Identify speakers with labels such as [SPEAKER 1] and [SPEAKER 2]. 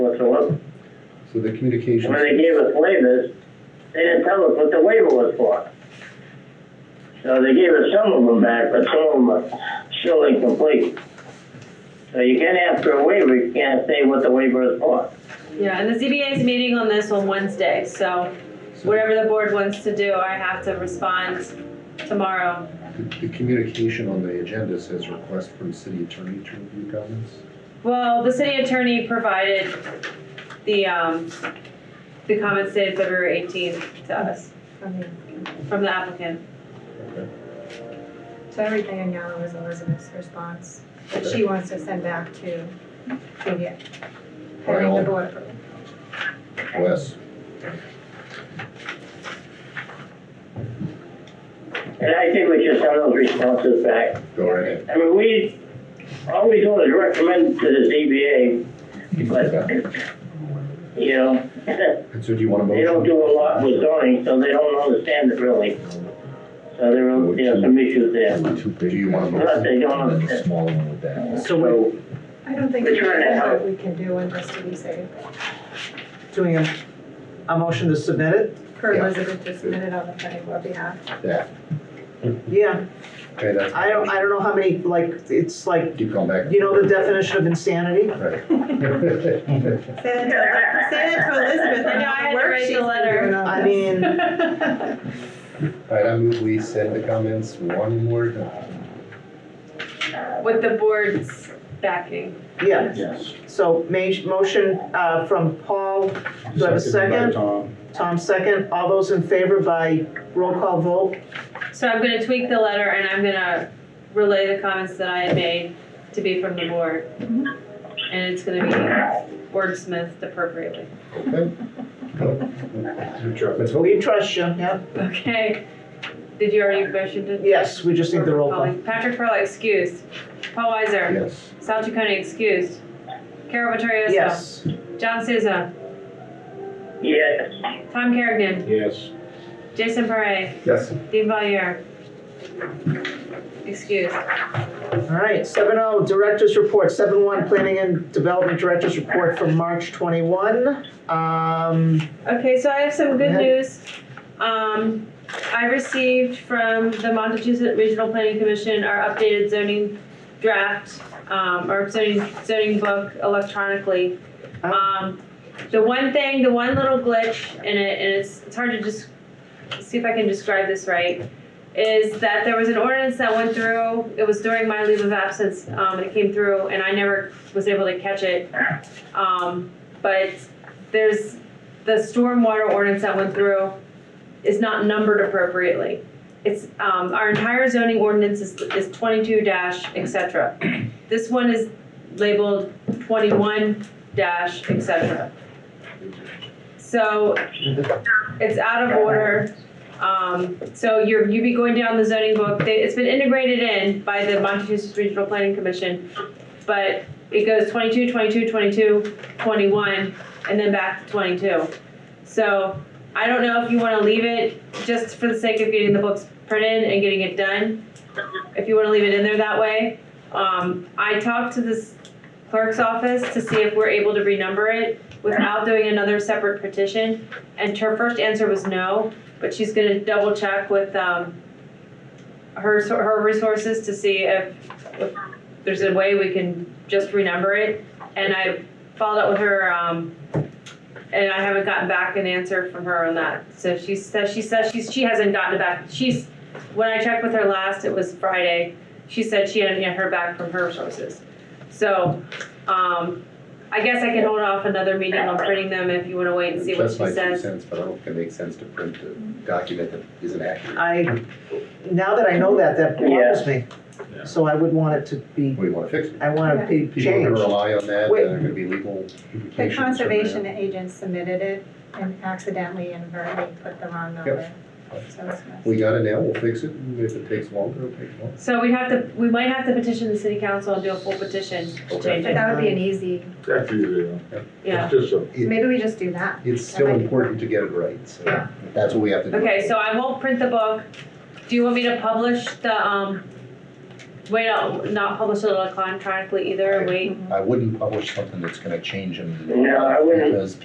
[SPEAKER 1] to us,
[SPEAKER 2] So the
[SPEAKER 1] and
[SPEAKER 2] communications,
[SPEAKER 1] when they gave us waivers, they didn't tell us what the waiver was for. So they gave us some of them back, but some of them are still incomplete. So you can't ask for a waiver, you can't say what the waiver is for.
[SPEAKER 3] Yeah, and the ZBA is meeting on this on Wednesday, so whatever the board wants to do, I have to respond tomorrow.
[SPEAKER 2] the the communication on the agenda says request from city attorney to review comments.
[SPEAKER 3] Well, the city attorney provided the, um, the comments dated February eighteenth to us from the applicant.
[SPEAKER 2] Okay.
[SPEAKER 4] So everything in yellow is Elizabeth's response that she wants to send back to to get having the
[SPEAKER 2] Well.
[SPEAKER 4] board approve.
[SPEAKER 2] Wes,
[SPEAKER 1] And I think we should send those responses back.
[SPEAKER 2] go right ahead.
[SPEAKER 1] I mean, we, all we do is recommend to the ZBA, but, you know,
[SPEAKER 2] And so do you want a
[SPEAKER 1] they don't
[SPEAKER 2] motion?
[SPEAKER 1] do a lot with zoning, so they don't understand it really. So there are, there are some issues there,
[SPEAKER 2] Do you want a
[SPEAKER 1] plus
[SPEAKER 2] motion?
[SPEAKER 1] they don't understand.
[SPEAKER 5] Smaller one with that.
[SPEAKER 6] So we're
[SPEAKER 4] I don't think
[SPEAKER 1] We're
[SPEAKER 4] there's
[SPEAKER 1] trying to help.
[SPEAKER 4] what we can do in this to be safe.
[SPEAKER 6] doing a, a motion to submit it?
[SPEAKER 4] Per
[SPEAKER 2] Yeah.
[SPEAKER 4] Elizabeth just submitted on the planning board behalf.
[SPEAKER 2] That,
[SPEAKER 6] Yeah,
[SPEAKER 2] okay, that's.
[SPEAKER 6] I don't, I don't know how many, like, it's like,
[SPEAKER 2] Keep going back.
[SPEAKER 6] you know the definition of insanity?
[SPEAKER 2] Right.
[SPEAKER 7] Say that to- say that to Elizabeth.
[SPEAKER 3] I know, I had to
[SPEAKER 7] Work
[SPEAKER 3] write
[SPEAKER 7] she's
[SPEAKER 3] the
[SPEAKER 7] been
[SPEAKER 3] letter.
[SPEAKER 7] doing on
[SPEAKER 6] I
[SPEAKER 7] this.
[SPEAKER 6] mean,
[SPEAKER 2] All right, I move we send the comments one more time.
[SPEAKER 3] With the board's backing.
[SPEAKER 6] yeah,
[SPEAKER 8] Yes.
[SPEAKER 6] so ma- motion, uh, from Paul, do I have a
[SPEAKER 8] Seconded by
[SPEAKER 6] second?
[SPEAKER 8] Tom.
[SPEAKER 6] Tom second, all those in favor by roll call vote?
[SPEAKER 3] So I'm gonna tweak the letter and I'm gonna relay the comments that I had made to be from the board. And it's gonna be wordsmithed appropriately.
[SPEAKER 2] Okay? Go.
[SPEAKER 8] Good job.
[SPEAKER 2] Let's vote.
[SPEAKER 6] We trust you, yeah?
[SPEAKER 3] Okay, did you already motion to?
[SPEAKER 6] Yes, we just need the roll call.
[SPEAKER 3] Patrick Perla excused. Paul Weiser.
[SPEAKER 2] Yes.
[SPEAKER 3] Sal Chaconi excused. Carol Vittorioso.
[SPEAKER 6] Yes,
[SPEAKER 3] John Souza.
[SPEAKER 1] Yes,
[SPEAKER 3] Tom Kerrigan.
[SPEAKER 8] Yes.
[SPEAKER 3] Jason Parre.
[SPEAKER 2] Yes.
[SPEAKER 3] Dean Valier. Excused.
[SPEAKER 6] all right, seven oh, director's report, seven one, planning and development director's report from March twenty-one. Um,
[SPEAKER 3] Okay, so I have some good
[SPEAKER 6] Go ahead.
[SPEAKER 3] news. Um, I received from the Montezuma Regional Planning Commission our updated zoning draft, um, or zoning, zoning book electronically.
[SPEAKER 6] Oh.
[SPEAKER 3] Um, the one thing, the one little glitch in it, and it's, it's hard to just, see if I can describe this right, is that there was an ordinance that went through, it was during my leave of absence, um, and it came through, and I never was able to catch it. Um, but there's, the stormwater ordinance that went through is not numbered appropriately. It's, um, our entire zoning ordinance is, is twenty-two dash et cetera. This one is labeled twenty-one dash et cetera. So, it's out of order, um, so you're, you'd be going down the zoning book, they, it's been integrated in by the Montezuma Regional Planning Commission, but it goes 22, 22, 22, 21 and then back to twenty-two. So I don't know if you wanna leave it just for the sake of getting the books printed and getting it done. If you wanna leave it in there that way. Um, I talked to this clerk's office to see if we're able to renumber it without doing another separate petition. And her first answer was no, but she's gonna double check with, um, her, her resources to see if, if there's a way we can just renumber it. And I followed up with her, um, and I haven't gotten back an answer from her on that. So she says she says she's she hasn't gotten it back. She's when I checked with her last, it was Friday. She said she hadn't yet heard back from her sources. So, um, I guess I can hold off another meeting on printing them if you want to wait and see what
[SPEAKER 2] That's
[SPEAKER 3] she
[SPEAKER 2] my two
[SPEAKER 3] says.
[SPEAKER 2] cents, but I don't think it makes sense to print a document that isn't accurate.
[SPEAKER 6] I, now that I know that, that bothers me.
[SPEAKER 8] Yeah.
[SPEAKER 6] So I would want it to be,
[SPEAKER 2] We want to fix it.
[SPEAKER 6] I want it to be
[SPEAKER 2] People are going to
[SPEAKER 6] changed.
[SPEAKER 2] rely on that, and
[SPEAKER 6] Wait.
[SPEAKER 2] there are going to be legal
[SPEAKER 4] The
[SPEAKER 2] implications. from that.
[SPEAKER 4] conservation agent submitted it and accidentally inadvertently put the wrong number. So it's messed.
[SPEAKER 2] We got it now, we'll fix it, and if it takes longer, it'll take longer.
[SPEAKER 3] So we have to we might have to petition the city council and do a full petition to
[SPEAKER 2] Okay.
[SPEAKER 3] change
[SPEAKER 4] But
[SPEAKER 3] it.
[SPEAKER 4] that would be an easy,
[SPEAKER 8] That's easy.
[SPEAKER 3] Yeah.
[SPEAKER 8] It's just a
[SPEAKER 4] maybe we just do that.
[SPEAKER 2] It's still important to get it right, so that's what we have to do.
[SPEAKER 3] Okay, so I won't print the book. Do you want me to publish the um Wait, I'll not publish it electronically either, wait
[SPEAKER 2] I wouldn't publish something that's gonna change them.
[SPEAKER 1] No, I wouldn't.
[SPEAKER 2] Because